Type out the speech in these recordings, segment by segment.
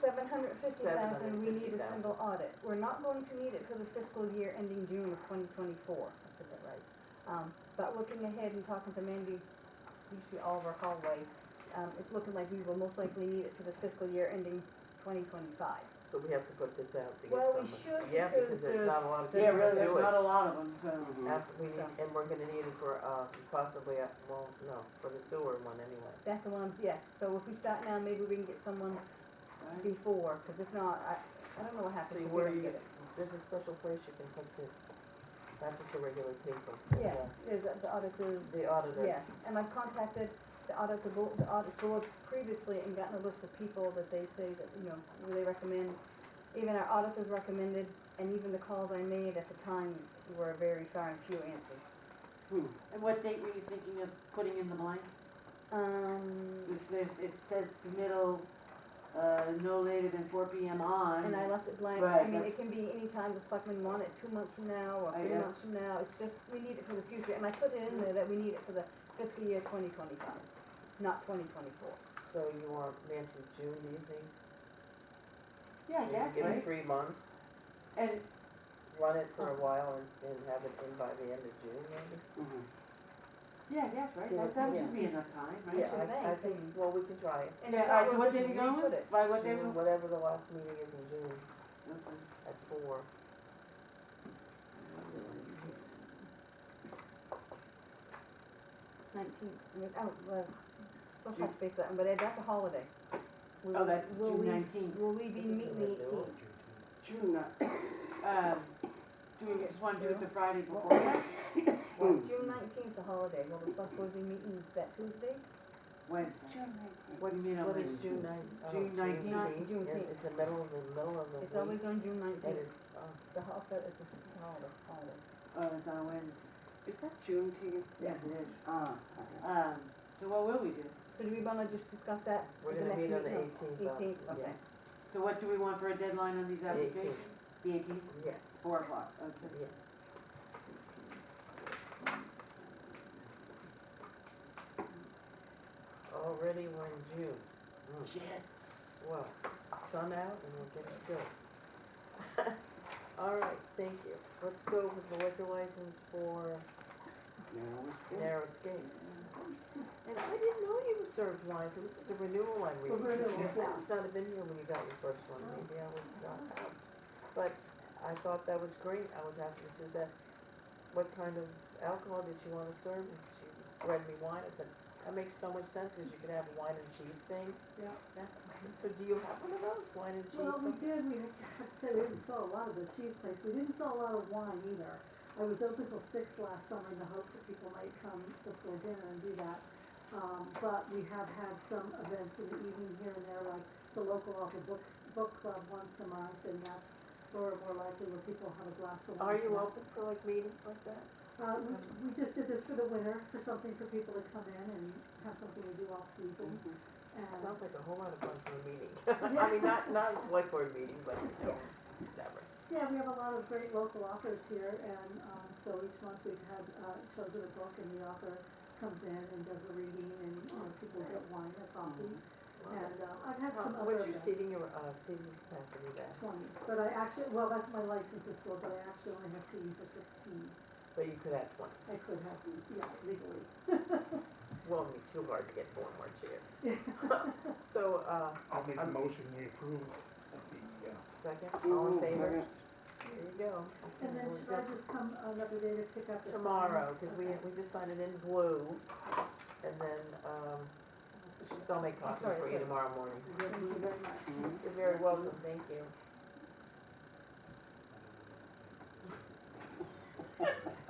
seven hundred fifty thousand, we need a 750,000. single audit. We're not going to need it for the fiscal year ending June of twenty twenty-four, I said that right. Um, but looking ahead and talking to Mandy, usually Oliver Hallway, um, it's looking like we will most likely need it for the fiscal year ending twenty twenty-five. So we have to put this out to get Well, someone. we should Yeah, because because there's not a lot of there's- people to Yeah, really, Mm-hmm. do there's not it. a lot of them, so. That's, we need, So. and we're gonna need it for, uh, possibly, uh, well, no, for the sewer one anyway. That's the one, yes. So if we start now, maybe we can get someone right? before, because if not, I, I don't know what happens if See, we where don't you- get it. There's a special place you can put this, not just a regular paper. Yeah, there's a- the auditor, The auditors. yeah, and I've contacted the auditor board, the audit board previously and gotten a list of people that they say that, you know, who they recommend. Even our auditors recommended, and even the calls I made at the time were very far and few answers. And what date were you thinking of putting in the blank? Um, If there's, it says submittal, uh, no later than four P M on. and I left it blank, I Right, mean, it that's- can be any time the selectmen want it, two months from now, or I three guess. months from now, it's just, we need it for the future, and I put it in there that we need it for the fiscal year twenty twenty-five, not twenty twenty-four. So you want Nancy June, do you think? Yeah, Maybe yes, Give it right? three months, And, run it for a while and, and have it in by the end of June, maybe? yeah, yes, right, Yeah, that, that yeah. should be enough time, right? Yeah. I- I think. think, well, we can try it. And if not, Yeah, all right, so we'll what just day we going re-put with? it. By what day? June, we- whatever the last meeting is in June, Okay. at four. Nineteen, I mean, oh, well, we'll touch base on that, but that's a holiday. Will- Oh, that's will June we- nineteenth. Will we be This is meeting the what they eighteenth? want. June, um, do we just wanna do it the Friday before that? Well, June nineteenth is a holiday, will the select board be meeting that Tuesday? Wednesday. What's, mean on what is Wednesday? June nine? oh, June 19th. June Yeah, 10th. It's the middle of the, middle of the It's week, always on June and nineteenth, it's, oh, it's a holiday, it's a holiday, holiday. Oh, it's on Wednesday. Is that Juneteenth? Yes, it is. Ah, Um, so what will we do? So do we wanna just discuss that? we're at gonna meet next on the meeting? eighteenth. Eighteenth, okay. So what do we want for a deadline on these The 18th. applications? The eighteenth, Yes, four o'clock, okay. yes. Already we're in June, Shit. well, sun out and we're getting good. All right, thank you. Let's go with the liquor license for now it's there. Narrow Escape. And I didn't know you served wine, so this is a renewal I'm reading. renewal, I must not have been here when you got your first one, maybe I was not out. But I thought that was great, I was asking Suzette, what kind of alcohol did you wanna serve? And she read me wine, I said, that makes so much sense, because you can have a wine and cheese thing. Yeah. So do you have one of those, wine and cheese? Well, we did, we have to say we didn't sell a lot of the cheese place, we didn't sell a lot of wine either. I was open till six last summer in the hopes that people might come before dinner and do that. Um, but we have had some events in the evening here and there, like the local author book, book club once a month, and that's more, more likely where people have a glass of wine. Are you Yeah. open for like meetings like that? Uh, we, we just did this for the winter, for something for people to come in and have something to do all season, and. Mm-hmm. Sounds like a whole lot of fun for a meeting. I mean, not, not a select board meeting, but, you know, whatever. Yeah, we have a lot of great local authors here, and um, so each month we've had uh, chosen a book, and the author comes in and does a reading, and you know, people get wine or coffee. And uh, I've had How, some other what's your events, seating, your, uh, seating capacity there? twenty, but I actually, well, that's my license is for, but I actually only have seating for sixteen. But you could have twenty. I could have these, yeah, legally. Well, it'd be too hard to get four more chairs. So, uh, I'll make a Um, motion, we approve the, uh, second, all in favor? There you go. And then We're should I good. just come uh, another day to pick up? the sign? Tomorrow, because we, Okay. we just signed it in blue, and then, um, they'll make coffee sorry, for you sorry. tomorrow morning. Thank you very much. You're very welcome, thank you.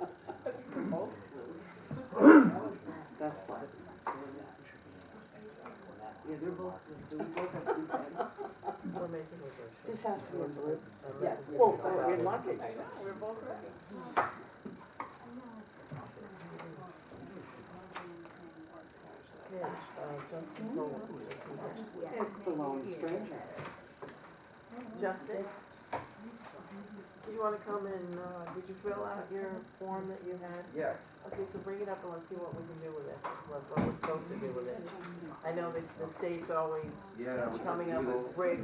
That's why. Yeah, they're both, they both have good heads. We're making a motion. This has to be a list. I'm Yes, ready to well, talk about we're it. lucky. We're both ready. Yes, uh, Justin Bowen, this is- It's the lone stranger. Justin, do you wanna come and, uh, did you fill out your form that you had? yeah, Okay, so bring it up and let's see what we can do with it, what, what we're supposed to do with it. I know that the state's always yeah. coming up with great